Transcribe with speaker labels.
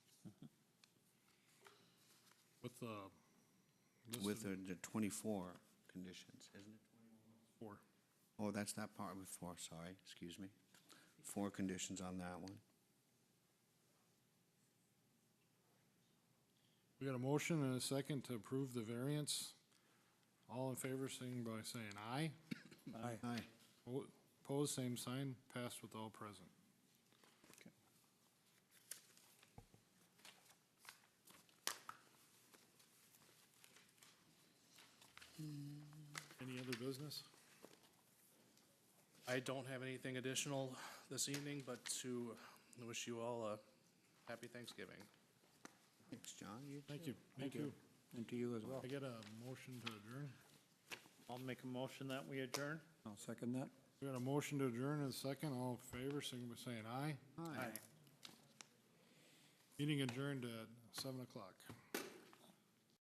Speaker 1: uh,
Speaker 2: with
Speaker 1: listed
Speaker 2: the the 24 conditions, isn't it?
Speaker 1: for.
Speaker 2: Oh, that's not part with four, sorry, excuse me. Four conditions on that one.
Speaker 1: We got a motion and a second to approve the variance. All in favor, sing by saying aye.
Speaker 3: Aye.
Speaker 2: Aye.
Speaker 1: O- Opposed, same sign, passed with all present. Any other business?
Speaker 4: I don't have anything additional this evening, but to wish you all a happy Thanksgiving.
Speaker 2: Thanks, John. You
Speaker 1: Thank
Speaker 2: too.
Speaker 1: you. Thank you.
Speaker 3: And to you as well.
Speaker 1: I get a motion to adjourn.
Speaker 5: I'll make a motion that we adjourn.
Speaker 3: I'll second that.
Speaker 1: We got a motion to adjourn and a second. All in favor, sing by saying aye.
Speaker 2: Aye.
Speaker 1: Meeting adjourned at seven o'clock.